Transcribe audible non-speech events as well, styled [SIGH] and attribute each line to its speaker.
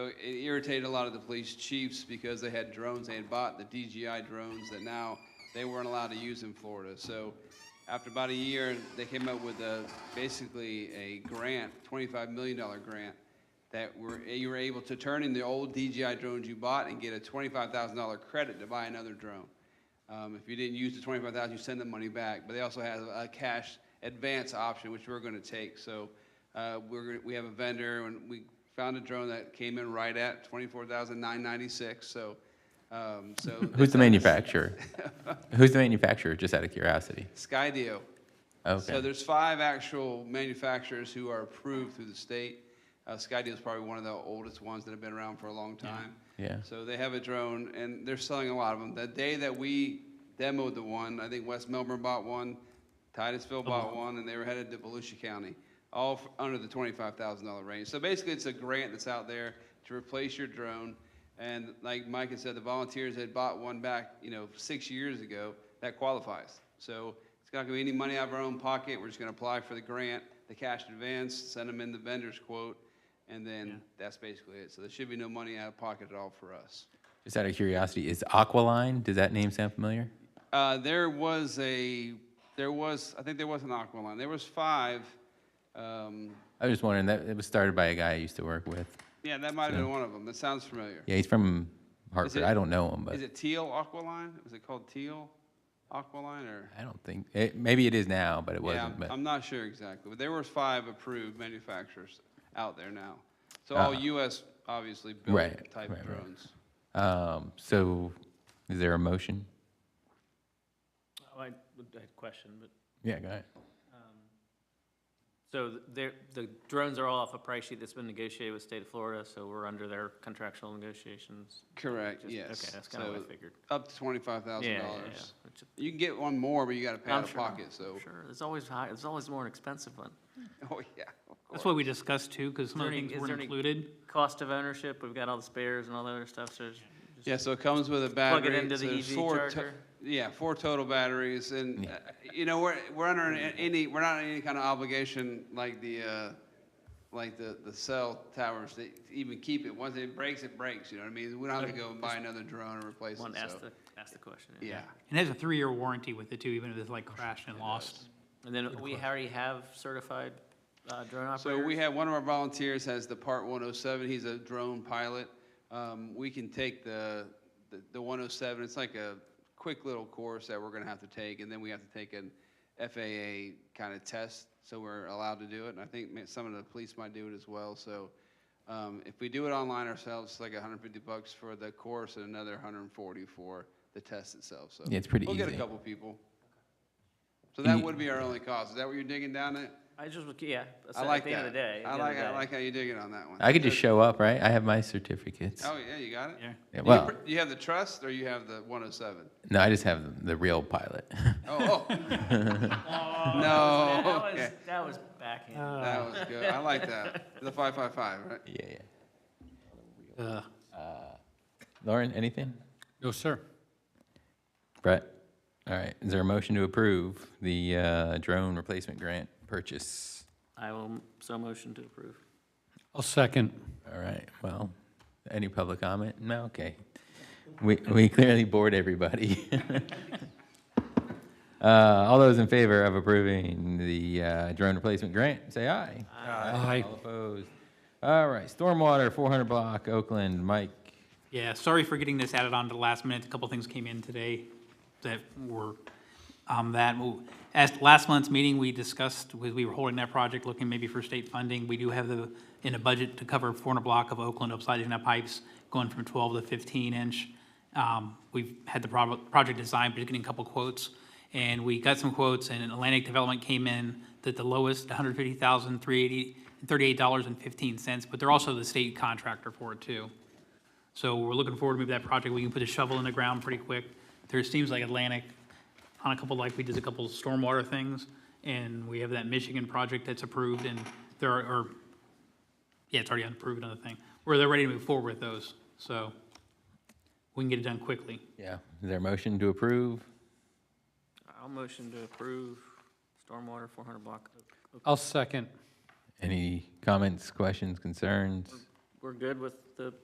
Speaker 1: it irritated a lot of the police chiefs because they had drones, they had bought the DJI drones that now they weren't allowed to use in Florida. So after about a year, they came up with a, basically a grant, $25 million grant, that were, you were able to turn in the old DJI drones you bought and get a $25,000 credit to buy another drone. Um, if you didn't use the twenty-five thousand, you send the money back, but they also have a cash advance option, which we're gonna take, so, uh, we're, we have a vendor, and we found a drone that came in right at twenty-four thousand nine ninety-six, so, um, so.
Speaker 2: [LAUGHS] Who's
Speaker 1: [LAUGHS]
Speaker 2: the manufacturer? Who's the manufacturer, just out of curiosity?
Speaker 1: Skydio. So
Speaker 2: Okay.
Speaker 1: there's five actual manufacturers who are approved through the state. Uh, Skydeal's probably one of the oldest ones that have been around for a long time.
Speaker 2: Yeah.
Speaker 1: So they have a drone, and they're selling a lot of them. The day that we demoed the one, I think West Melbourne bought one, Titusville bought one, and they were headed to Volusia County, all f- under the twenty-five thousand dollar range. So basically, it's a grant that's out there to replace your drone. And like Mike had said, the volunteers had bought one back, you know, six years ago. That qualifies. So it's not gonna be any money out of our own pocket. We're just gonna apply for the grant, the cash advance, send them in the vendor's quote, and then that's basically it. So there should be no money out of pocket at all for us.
Speaker 2: Just out of curiosity, is Aqualine, does that name sound familiar?
Speaker 1: Uh, there was a, there was, I think there was an Aqualine. There was five. Um,
Speaker 2: I was just wondering, that, it was started by a guy I used to work with.
Speaker 1: yeah, that might have been one of them. That sounds familiar.
Speaker 2: Yeah, he's from Hartford.
Speaker 1: it-
Speaker 2: I don't know him, but
Speaker 1: Is it teal Aqualine? Was it called teal Aqualine or?
Speaker 2: I don't think, it, maybe it is now, but it
Speaker 1: Yeah,
Speaker 2: wasn't.
Speaker 1: I'm-
Speaker 2: But
Speaker 1: I'm not sure exactly, but there were five approved manufacturers out there now. So all US, obviously, built
Speaker 2: Uh-huh. Right,
Speaker 1: type
Speaker 2: right, right.
Speaker 1: drones.
Speaker 2: Um, so, is there a motion?
Speaker 3: Oh, I would- I had a question, but,
Speaker 2: Yeah, go ahead.
Speaker 3: so th- they're, the drones are all off a price sheet that's been negotiated with state of Florida, so we're under their contractual negotiations?
Speaker 1: Correct,
Speaker 3: Just-
Speaker 1: yes.
Speaker 3: Okay, that's kind of what
Speaker 1: So
Speaker 3: I figured.
Speaker 1: Up to twenty-five
Speaker 3: Yeah,
Speaker 1: thousand
Speaker 3: yeah,
Speaker 1: dollars.
Speaker 3: yeah, which-
Speaker 1: You can get one more, but you gotta pay
Speaker 3: I'm
Speaker 1: out of
Speaker 3: sure,
Speaker 1: pocket, so,
Speaker 3: Sure, there's always high, there's always more an expensive one.
Speaker 1: [LAUGHS] oh, yeah, of course.
Speaker 4: That's what we discussed too, because some
Speaker 3: there
Speaker 4: of the
Speaker 3: any-
Speaker 4: things
Speaker 3: is
Speaker 4: weren't
Speaker 3: there any-
Speaker 4: included.
Speaker 3: Cost of ownership, we've got all the spares and all the other stuff, so there's
Speaker 1: Yeah, so it comes with a battery.
Speaker 3: plug it into
Speaker 1: so
Speaker 3: the
Speaker 1: there's
Speaker 3: EV
Speaker 1: four to-
Speaker 3: charger.
Speaker 1: Yeah, four total batteries, and, uh, you know, we're, we're under an- any, we're not under any kind of obligation like the, uh, like the, the cell towers to even keep it. Once it breaks, it breaks, you know what I mean? We don't have to go and buy another drone and replace it,
Speaker 3: one, ask
Speaker 1: so.
Speaker 3: the, ask the question.
Speaker 1: Yeah,
Speaker 4: It has a three-year warranty with it too, even if it's like crashed and lost.
Speaker 3: And then we already have certified uh, drone
Speaker 1: so
Speaker 3: operators?
Speaker 1: we have, one of our volunteers has the Part 107, he's a drone pilot. Um, We can take the, the- the 107, it's like a quick little course that we're gonna have to take, and then we have to take an FAA kind of test, so we're allowed to do it, and I think ma- some of the police might do it as well, so um, if we do it online ourselves, it's like 150 bucks for the course and another 140 for the test itself, so.
Speaker 2: Yeah, it's pretty
Speaker 1: We'll get a
Speaker 2: easy.
Speaker 1: couple people. So
Speaker 2: And
Speaker 1: that
Speaker 2: you-
Speaker 1: would be our only cost, is that what you're digging down at?
Speaker 3: I just, would- yeah, so
Speaker 1: I
Speaker 3: at
Speaker 1: like
Speaker 3: the end of
Speaker 1: that.
Speaker 3: the day.
Speaker 1: I
Speaker 3: at the end of
Speaker 1: like,
Speaker 3: the
Speaker 1: I
Speaker 3: day.
Speaker 1: like how you dig it on that one.
Speaker 2: I could just show up, right? I have my certificates.
Speaker 1: Oh, yeah, you got it?
Speaker 4: Yeah.
Speaker 2: Yeah,
Speaker 1: You
Speaker 2: well-
Speaker 1: pr- You have the trust or you have the
Speaker 3: [LAUGHS]
Speaker 1: 107?
Speaker 2: No, I just have the- the real pilot. [LAUGHS]
Speaker 1: Oh, oh. [LAUGHS]
Speaker 3: That
Speaker 1: No.
Speaker 3: was,
Speaker 1: oh,
Speaker 3: [LAUGHS]
Speaker 1: okay.
Speaker 3: that was backhand.
Speaker 1: That was good. I like that. The 555, right?
Speaker 2: Yeah, yeah.
Speaker 4: Uh,
Speaker 2: Lauren, anything?
Speaker 4: No, sir.
Speaker 2: Brett? All right, is there a motion to approve the uh, drone replacement grant purchase?
Speaker 3: I will, m- so motion to approve.
Speaker 4: I'll second.
Speaker 2: All right, well, any public comment? No, okay. We, we clearly bored everybody. [LAUGHS] Uh, All those in favor of approving the uh, drone replacement grant, say aye.
Speaker 4: Aye.
Speaker 2: All opposed? All right, stormwater, 400 block, Oakland, Mike.
Speaker 4: Yeah, sorry for getting this added on to the last minute. A couple things came in today that were, um, that, as last month's meeting, we discussed, we we were holding that project, looking maybe for state funding. We do have the, in a budget to cover four hundred block of Oakland upsizing that pipes, going from twelve to fifteen inch. Um, we've had the prob- project designed, but just getting a couple quotes. And we got some quotes, and Atlantic Development came in that the lowest, one hundred fifty thousand, three eighty, thirty-eight dollars and fifteen cents, but they're also the state contractor for it too. So we're looking forward to maybe that project, we can put a shovel in the ground pretty quick. There seems like Atlantic, on a couple, like we did a couple stormwater things, and we have that Michigan project that's approved, and there are, or, yeah, it's already approved, another thing, where they're ready to move forward with those, so we can get it done quickly.
Speaker 2: Yeah, is there a motion to approve?
Speaker 3: I'll motion to approve stormwater four hundred block.
Speaker 4: I'll second.
Speaker 2: Any comments, questions, concerns?
Speaker 3: We're good with the